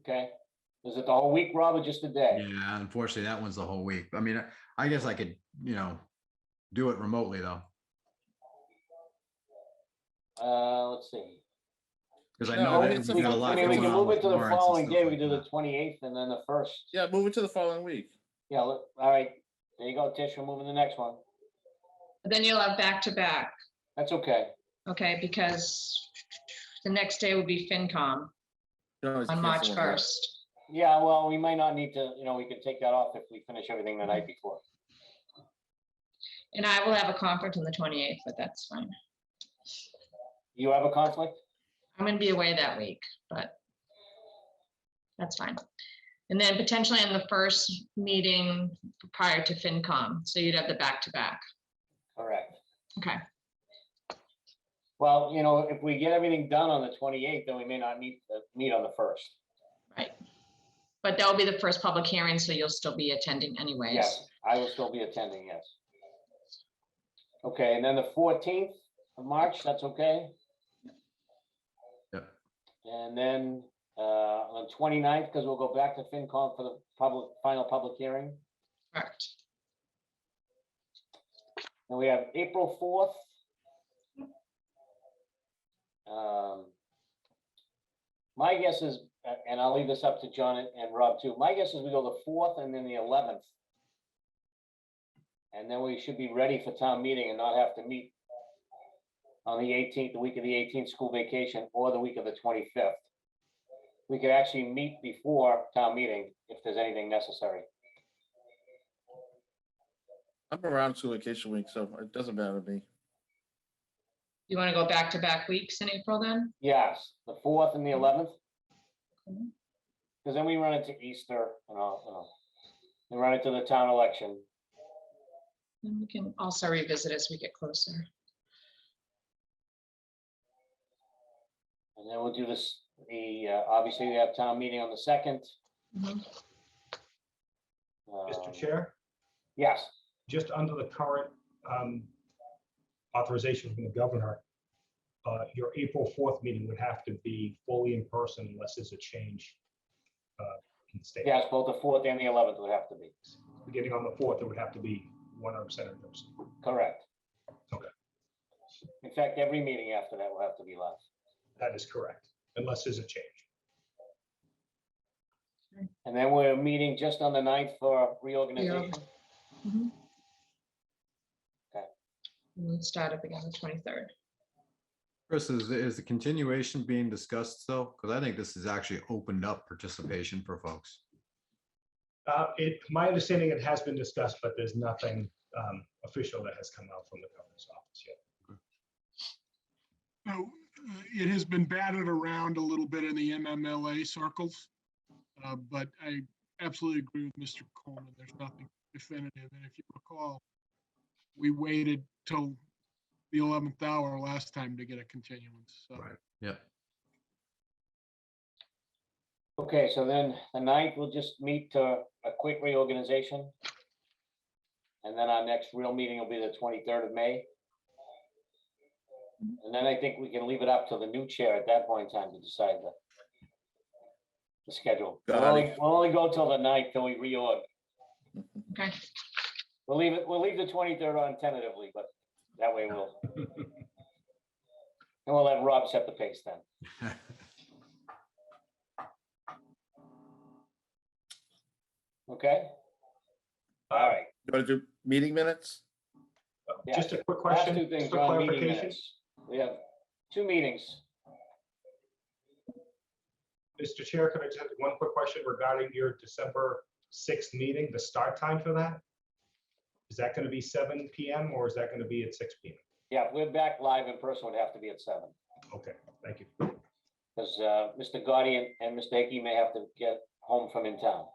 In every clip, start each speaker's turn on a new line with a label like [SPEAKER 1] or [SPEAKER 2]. [SPEAKER 1] okay? Is it the whole week, Rob, or just a day?
[SPEAKER 2] Yeah, unfortunately, that one's the whole week. I mean, I guess I could, you know, do it remotely though,
[SPEAKER 1] Uh, let's see.
[SPEAKER 2] because I
[SPEAKER 3] No,
[SPEAKER 2] know
[SPEAKER 3] it's
[SPEAKER 2] that
[SPEAKER 3] a
[SPEAKER 2] we got a
[SPEAKER 3] fun-
[SPEAKER 2] lot
[SPEAKER 1] I mean, we
[SPEAKER 2] going
[SPEAKER 1] can
[SPEAKER 2] on
[SPEAKER 1] move it
[SPEAKER 2] with
[SPEAKER 1] to the
[SPEAKER 2] warrants and
[SPEAKER 1] following
[SPEAKER 2] stuff
[SPEAKER 1] day, we
[SPEAKER 2] like
[SPEAKER 1] do the
[SPEAKER 2] that.
[SPEAKER 1] twenty-eighth and then the first.
[SPEAKER 3] Yeah, move it to the following week.
[SPEAKER 1] Yeah, look, all right, there you go, Tish, we're moving to the next one.
[SPEAKER 4] Then you'll have back to back,
[SPEAKER 1] That's okay.
[SPEAKER 4] okay, because the next day would be FinCom
[SPEAKER 3] You can always
[SPEAKER 4] on March
[SPEAKER 3] cancel it.
[SPEAKER 4] 1st.
[SPEAKER 1] Yeah, well, we might not need to, you know, we can take that off if we finish everything the night before.
[SPEAKER 4] And I will have a conference on the 28th, but that's fine.
[SPEAKER 1] You have a conflict?
[SPEAKER 4] I'm gonna be away that week, but that's fine. And then potentially in the first meeting prior to FinCom, so you'd have the back to back.
[SPEAKER 1] Correct.
[SPEAKER 4] Okay,
[SPEAKER 1] Well, you know, if we get everything done on the twenty-eighth, then we may not need, uh, meet on the first.
[SPEAKER 4] but that'll be the first public hearing, so you'll still be attending anyways.
[SPEAKER 1] Yes, I will still be attending, yes. Okay, and then the fourteenth of March, that's okay?
[SPEAKER 2] Yep.
[SPEAKER 1] And then, uh, on 29th, because we'll go back to FinCom for the public, final public hearing.
[SPEAKER 4] Correct.
[SPEAKER 1] And we have April fourth. Um, My guess is, a- and I'll leave this up to John and- and Rob too, my guess is we go the fourth and then the eleventh. And then we should be ready for town meeting and not have to meet on the eighteenth, the week of the eighteenth, school vacation, or the week of the twenty-fifth. We could actually meet before town meeting if there's anything necessary.
[SPEAKER 3] I'm around school vacation week, so it doesn't matter to me.
[SPEAKER 4] You want to go back to back weeks in April then?
[SPEAKER 1] Yes, the fourth and the eleventh.
[SPEAKER 4] Mhm.
[SPEAKER 1] Because then we run into Easter and all, you know, we run into the town election.
[SPEAKER 4] Then we can also revisit as we get closer.
[SPEAKER 1] And then we'll do this, the, uh, obviously we have town meeting on the second.
[SPEAKER 4] Mhm.
[SPEAKER 5] Mr. Chair,
[SPEAKER 1] Um, Yes,
[SPEAKER 5] just under the current um, authorization from the governor, uh, your April 4th meeting would have to be fully in person unless there's a change uh, in the state.
[SPEAKER 1] yes, both the fourth and the eleventh would have to be,
[SPEAKER 5] Beginning on the 4th, it would have to be 100% in person.
[SPEAKER 1] correct.
[SPEAKER 5] Okay.
[SPEAKER 1] In fact, every meeting after that will have to be live.
[SPEAKER 5] That is correct, unless there's a change.
[SPEAKER 1] And then we're meeting just on the ninth for
[SPEAKER 4] Yeah.
[SPEAKER 1] reorganization.
[SPEAKER 4] Mhm.
[SPEAKER 1] Okay.
[SPEAKER 4] And then start up again on the 23rd.
[SPEAKER 2] Chris, is, is the continuation being discussed still? Because I think this has actually opened up participation for folks.
[SPEAKER 5] Uh, It, my understanding, it has been discussed, but there's nothing um, official that has come out from the governor's office yet.
[SPEAKER 6] No, uh, it has been batted around a little bit in the MMLA circles. uh, But I absolutely agree with Mr. Coleman. There's nothing definitive. And if you recall, we waited till the 11th hour last time to get a continuance. So
[SPEAKER 2] Yep.
[SPEAKER 1] Okay, so then the ninth, we'll just meet to a quick reorganization. And then our next real meeting will be the twenty-third of May. And then I think we can leave it up to the new chair at that point in time to decide the the schedule. We'll
[SPEAKER 3] Got it.
[SPEAKER 1] only, we'll only go till the ninth till we reorg.
[SPEAKER 4] Okay,
[SPEAKER 1] We'll leave it, we'll leave the twenty-third on tentatively, but that way we'll. And we'll let Rob set the pace then. Okay? All right.
[SPEAKER 3] You want to do meeting minutes?
[SPEAKER 5] Uh,
[SPEAKER 1] Yeah.
[SPEAKER 5] Just a quick
[SPEAKER 1] Last
[SPEAKER 5] question.
[SPEAKER 1] two things
[SPEAKER 5] for
[SPEAKER 1] are on meeting
[SPEAKER 5] clarification.
[SPEAKER 1] minutes. We have two meetings.
[SPEAKER 5] Mr. Chair, could I just have one quick question regarding your December 6th meeting, the start time for that? Is that going to be seven PM or is that going to be at six PM?
[SPEAKER 1] Yeah, if we're back live in person, would have to be at seven,
[SPEAKER 5] Okay, thank you.
[SPEAKER 1] because Mr. Gotti and- uh, and Mr. Hickey may have to get home from in town.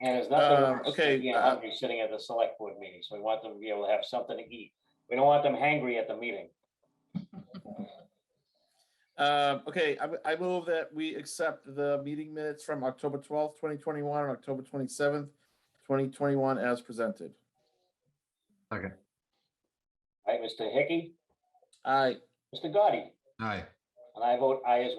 [SPEAKER 1] And it's
[SPEAKER 3] Um,
[SPEAKER 1] nothing worse
[SPEAKER 3] okay,
[SPEAKER 1] than being
[SPEAKER 3] uh,
[SPEAKER 1] hungry sitting at the select board meeting, so we want them to be able to have something to eat. We don't want them hangry at the meeting.
[SPEAKER 3] Um, Okay, I, I move that we accept the meeting minutes from October 12th, 2021, and October 27th, 2021 as presented.
[SPEAKER 1] Right, Mr. Hickey,
[SPEAKER 3] Aye.
[SPEAKER 1] Mr. Gotti,
[SPEAKER 2] All right.
[SPEAKER 1] And I vote aye as